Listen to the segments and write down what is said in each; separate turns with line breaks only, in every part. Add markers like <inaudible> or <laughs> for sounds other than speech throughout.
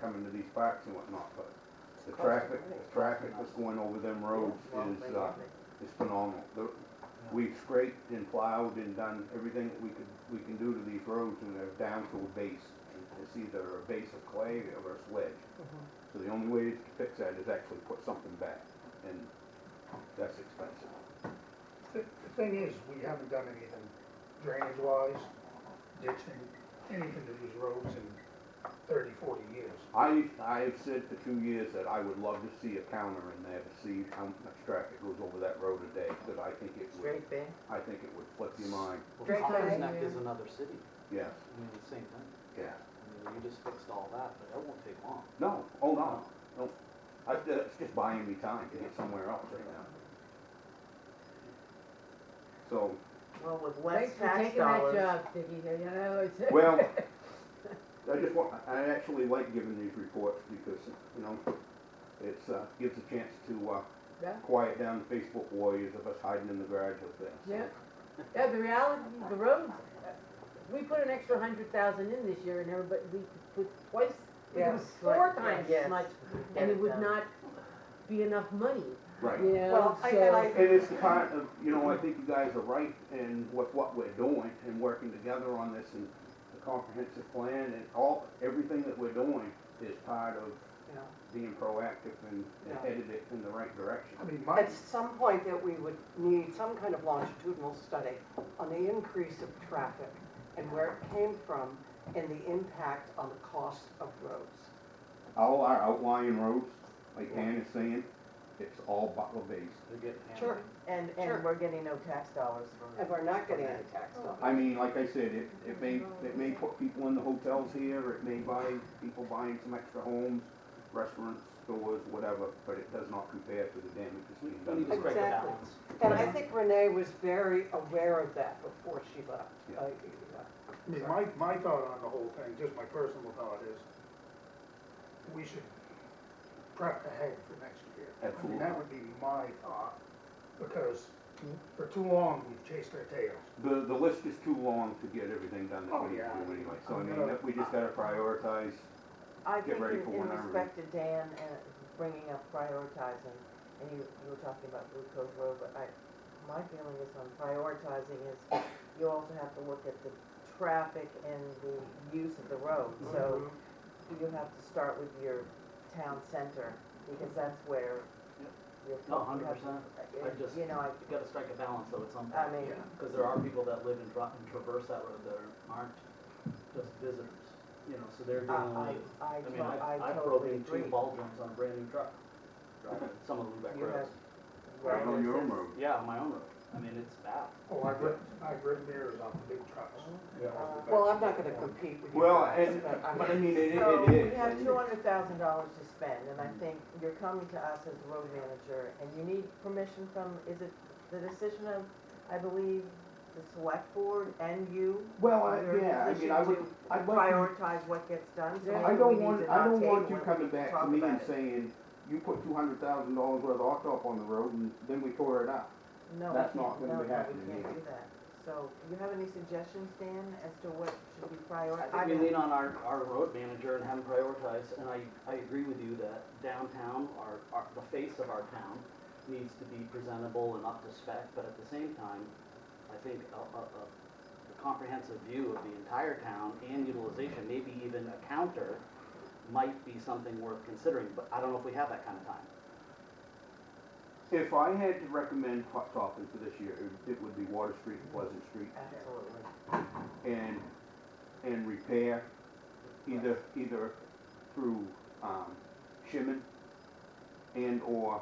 coming to these parks and whatnot, but the
It's costing
traffic,
money.
the traffic that's going over them roads
Yeah, well,
is,
maybe,
uh,
maybe.
is phenomenal. The- We've scraped and plowed and done everything that we could, we can do to these roads and they're down to a base. It's either a base of clay or a sledge. So the only way to fix that is actually put something back and that's expensive.
The the thing is, we haven't done anything drainage wise, ditching, anything to these roads in thirty, forty years.
I, I've said for two years that I would love to see a counter in there to see how much traffic goes over that road a day, because I think it would,
Straight there.
I think it would flip your mind.
Drake Lane,
Neck
yeah.
is another city,
Yes,
I mean, the same thing,
yeah.
I mean, you just fixed all that, but that won't take long.
No, oh, no, no. I, uh, it's just buying me time to get somewhere else right now. So,
Well, with less
Thanks for
tax
taking that
dollars.
job, Dicky, you know, it's.
well, I just want, I actually like giving these reports because, you know, it's, uh, gives a chance to, uh,
<laughs> Yeah.
quiet down the Facebook warriors of us hiding in the garage up there. so.
Yeah, yeah, the reality, the roads, uh, we put an extra hundred thousand in this year and everybody, we put twice, it was
Yes.
four
Right,
times
yes.
as much,
Get
and it
it
would
done.
not be enough money,
Right.
you know,
Well, I- and
so.
I-
And it's the part of, you know, I think you guys are right in with what we're doing and working together on this and the comprehensive plan and all, everything that we're doing is part of
Yeah.
being proactive and and
Yeah.
headed it in the right direction.
I mean, my,
At some point that we would need some kind of longitudinal study on the increase of traffic and where it came from and the impact on the cost of roads.
All our outlying roads, like Ann is saying, it's all Butler based.
They're getting hammered.
Sure.
And,
Sure.
and we're getting no tax dollars from
And
it.
we're not getting any
Oh.
tax dollars.
I mean, like I said, it, it may, it may put people in the hotels here, it may buy, people buying some extra homes, restaurants, stores, whatever, but it does not compare to the damage that's being
We
done.
need
to
to
the
strike
roads.
a
Exactly.
balance.
And I think Renee was very aware of that before she left.
Yeah.
Uh,
I mean, my, my thought on the whole thing, just my personal thought is, we should prep ahead for next year. I mean, that would be my thought, because for too long, we've chased our tails.
The, the list is too long to get everything done that
Oh,
we need to
yeah.
do anyway, so I
I'm
mean,
gonna-
that we just gotta prioritize.
I
Get
think
ready
in
for
in
when I re-
respect to Dan and bringing up prioritizing, and you, you were talking about Blue Cove Road, but I, my feeling is on prioritizing is you also have to look at the traffic and the use of the road, so
Mm-hmm.
you have to start with your town center, because that's where
Yep.
your.
No, 100%. I
And,
just-
You know, I,
You gotta strike a balance though at some
I
point,
mean,
Yeah.
because there are people that live and dri and traverse that road that are- aren't just visitors, you know, so they're
I,
dealing
I,
with,
I
I
to-
mean, I've,
I
I've
totally
broken
agree.
two ball drums on a brand new truck, driving some of the Lubec
You
roads.
Right,
on your own
this
road.
is-
Yeah, on my own road, I mean, it's bad.
Oh, I've ridden, I've ridden mirrors off the big trucks.
uh,
Well, I'm not gonna compete with you
Well,
guys,
and-
but I
but I
mean,
mean, it, it is.
So we have
and
two hundred thousand dollars to spend, and I think you're coming to us as the road manager, and you need permission from, is it the decision of, I believe, the select board and you?
Well, I-
Your
Uh, yeah, I mean,
position
I would,
to
I'd like to
Prioritize what gets done, so
I
maybe we
don't
need
want,
to
I
not
don't
table
want you
it, we
coming
can
back
talk
to me
about
and
it.
saying, you put two hundred thousand dollars worth of hot top on the road and then we tore it up.
No, we
that's
can't-
not gonna
no,
be
no,
happening
We
here.
can't do that. So, do you have any suggestions, Dan, as to what should be prioritized?
I think we lean on our, our road manager and have him prioritize, and I, I agree with you that downtown, our, our, the face of our town needs to be presentable and up to spec, but at the same time, I think a, a, a a comprehensive view of the entire town and utilization, maybe even a counter, might be something worth considering, but I don't know if we have that kind of time.
If I had to recommend hot topping for this year, it- it would be Water Street and Pleasant Street
Absolutely.
and, and repair either, either through, um, shimming and or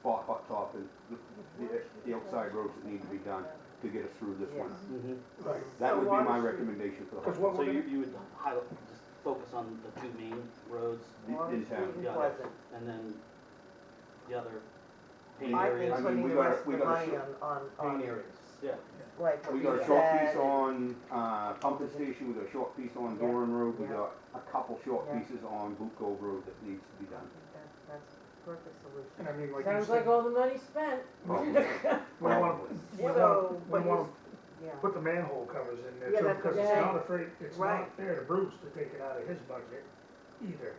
spot hot topping, the, the- the outside roads that need to be done to get us through this winter.
Yes.
Right.
That
So
would be
Water
my
Street-
recommendation for the
Because
hot
what
So
we're
you,
gonna,
you would highlight, just focus on the two main roads
top in town.
Even
Yeah.
Pleasant.
and then the other pain
I
areas.
think
I mean,
putting
we
the
gotta-
rest of
we
the
gotta
money
sort-
on, on,
Pain
on,
areas, yeah.
like what
We
we
got
said.
a short piece on, uh, pumping station, we got a short piece on
Yeah,
Doran Road, we
yeah.
got a couple short
Yeah.
pieces on Boot Cove Road that needs to be
<laughs>
done.
That- That's perfect
and I
solution.
mean, like you
Sounds like
said,
all the money spent.
we wanna,
Probably.
we wanna,
So,
we
but
wanna
Yeah.
put the manhole covers in there
Yeah,
too,
that's
because
okay.
it's not afraid, it's
Right.
not fair to Bruce to take it out of his budget either.